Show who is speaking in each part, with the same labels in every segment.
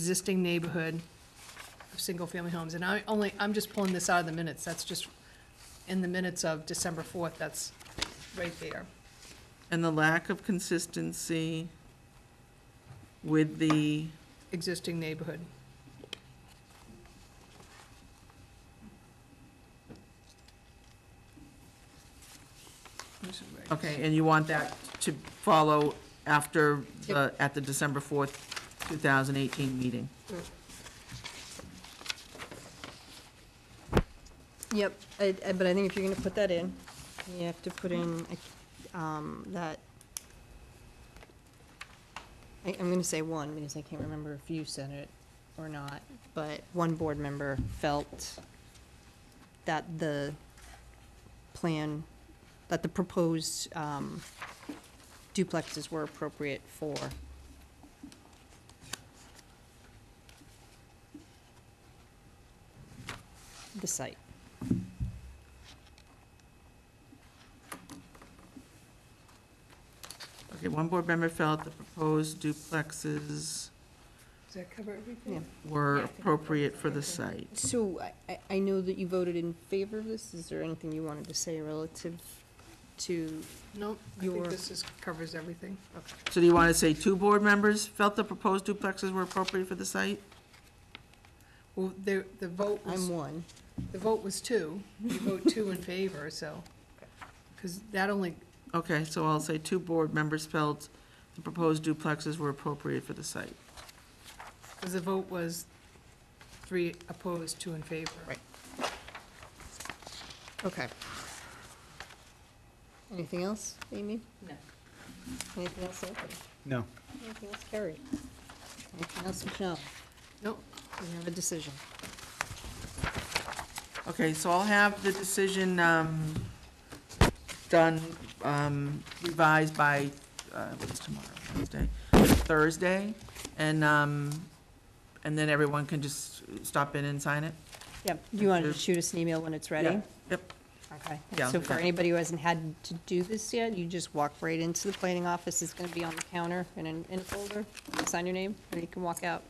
Speaker 1: existing neighborhood of single-family homes, and I only, I'm just pulling this out of the minutes, that's just in the minutes of December fourth, that's right there.
Speaker 2: And the lack of consistency with the,
Speaker 1: existing neighborhood.
Speaker 2: okay, and you want that to follow after, the at the December 4th, 2018 meeting.
Speaker 3: Yep, I, I, but I think if you're gonna put that in, you have to put in, um, that. I, I'm gonna say one, because I can't remember if you said it or not, but one board member felt that the plan, that the proposed, um, duplexes were appropriate for. The site.
Speaker 2: Okay, one board member felt the proposed duplexes
Speaker 1: Does that cover
Speaker 3: Yeah.
Speaker 1: everything?
Speaker 2: were appropriate for the site.
Speaker 3: So I- I, I know that you voted in favor of this. Is there anything you wanted to say relative to?
Speaker 1: No, I think
Speaker 3: Your-
Speaker 1: this is, covers everything.
Speaker 2: So do you want to say two board members felt the proposed duplexes were appropriate for the site?
Speaker 1: Well, the, the vote
Speaker 3: I'm
Speaker 1: was,
Speaker 3: one.
Speaker 1: the vote was two, you vote two in favor, so, because that only,
Speaker 2: Okay, so I'll say two board members felt the proposed duplexes were appropriate for the site.
Speaker 1: because the vote was three opposed, two in favor.
Speaker 3: Right. Okay. Anything else, Amy?
Speaker 1: No.
Speaker 3: Anything else, Anthony?
Speaker 4: No.
Speaker 3: Anything else, Carrie? Anything else, Michelle?
Speaker 1: No,
Speaker 3: We have a decision.
Speaker 2: Okay, so I'll have the decision um, done, um, revised by, uh, what's tomorrow, Wednesday, Thursday, and, um, and then everyone can just stop in and sign it?
Speaker 3: Yep, you wanted to shoot us an email when it's ready?
Speaker 2: Yep,
Speaker 3: Okay,
Speaker 2: Yeah,
Speaker 3: so for
Speaker 2: okay.
Speaker 3: anybody who hasn't had to do this yet, you just walk right into the planning office, it's gonna be on the counter in an, in a folder, sign your name, and you can walk out.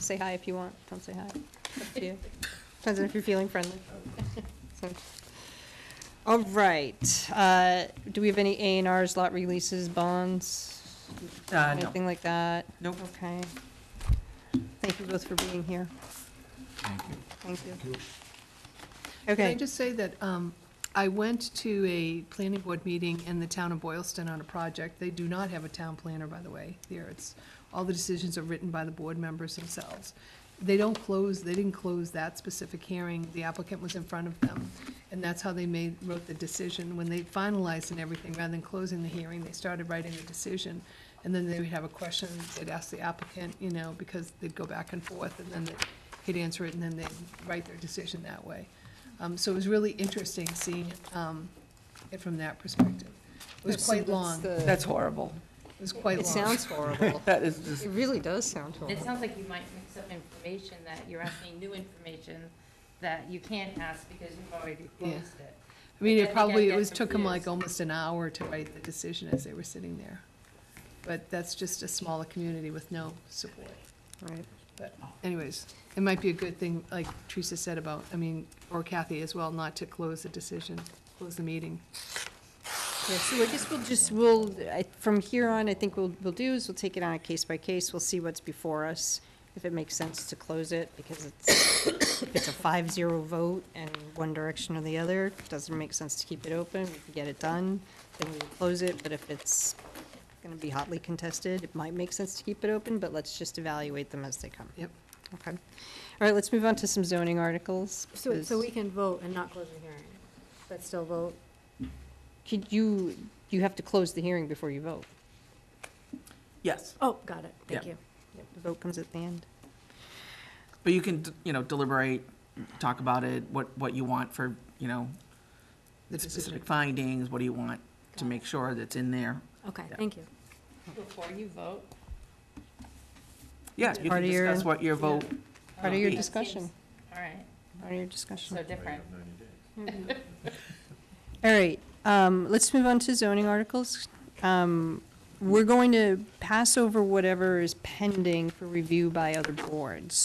Speaker 3: Say hi if you want, don't say hi, up to you. Depends on if you're feeling friendly. So- All right, uh, do we have any A and Rs, lot releases, bonds,
Speaker 2: uh, no,
Speaker 3: anything like that?
Speaker 2: nope.
Speaker 3: Okay. Thank you both for being here. Thank you. Thank you.
Speaker 1: Can
Speaker 3: Okay.
Speaker 1: I just say that um, I went to a planning board meeting in the town of Boylston on a project. They do not have a town planner, by the way, there. It's, all the decisions are written by the board members themselves. They don't close, they didn't close that specific hearing. The applicant was in front of them. And that's how they made, wrote the decision. When they finalized and everything, rather than closing the hearing, they started writing the decision. And then they would have a question, they'd ask the applicant, you know, because they'd go back and forth, and then they- he'd answer it, and then they'd write their decision that way. Um, so it was really interesting seeing, um, it from that perspective. It was
Speaker 3: So
Speaker 1: quite
Speaker 3: that's
Speaker 1: long, it
Speaker 3: the-
Speaker 2: That's horrible.
Speaker 1: was quite long.
Speaker 3: It sounds horrible.
Speaker 2: That is just,
Speaker 3: It really does sound
Speaker 5: It
Speaker 3: horrible.
Speaker 5: sounds like you might mix up information, that you're asking new information that you can't ask because you've already
Speaker 1: Yeah.
Speaker 5: closed it.
Speaker 1: I mean,
Speaker 5: I think
Speaker 1: it
Speaker 5: I
Speaker 1: probably, it
Speaker 5: get
Speaker 1: was, took them like
Speaker 5: confused.
Speaker 1: almost an hour to write the decision as they were sitting there. But that's just a smaller community with no support.
Speaker 3: Right.
Speaker 1: But anyways, it might be a good thing, like Teresa said about, I mean, or Kathy as well, not to close the decision, close the meeting.
Speaker 3: Yeah, so I guess we'll just, we'll, I- from here on, I think we'll, we'll do is we'll take it on a case by case. We'll see what's before us, if it makes sense to close it, because it's, if it's a five-zero vote and one direction or the other, it doesn't make sense to keep it open. We can get it done, then we will close it, but if it's gonna be hotly contested, it might make sense to keep it open, but let's just evaluate them as they come.
Speaker 1: Yep.
Speaker 3: Okay. All right, let's move on to some zoning articles.
Speaker 6: So, so
Speaker 3: because-
Speaker 6: we can vote and not close the hearing, but still vote?
Speaker 3: Could you, you have to close the hearing before you vote.
Speaker 2: yes,
Speaker 6: Oh, got it, thank
Speaker 2: Yeah.
Speaker 6: you.
Speaker 3: The vote comes at the end.
Speaker 2: but you can, you know, deliberate, talk about it, what, what you want for, you know,
Speaker 1: The decision.
Speaker 2: specific findings, what do you want to make sure that's in there?
Speaker 6: Okay,
Speaker 2: Yeah.
Speaker 6: thank you.
Speaker 5: Before you vote.
Speaker 2: Yeah, you can
Speaker 3: Part of your-
Speaker 2: discuss what your vote
Speaker 3: Part of your
Speaker 2: Okay.
Speaker 3: discussion,
Speaker 5: Um, All right,
Speaker 3: part of your
Speaker 5: so
Speaker 3: discussion.
Speaker 5: different.
Speaker 3: All right, um, let's move on to zoning articles. Um, we're going to pass over whatever is pending for review by other boards.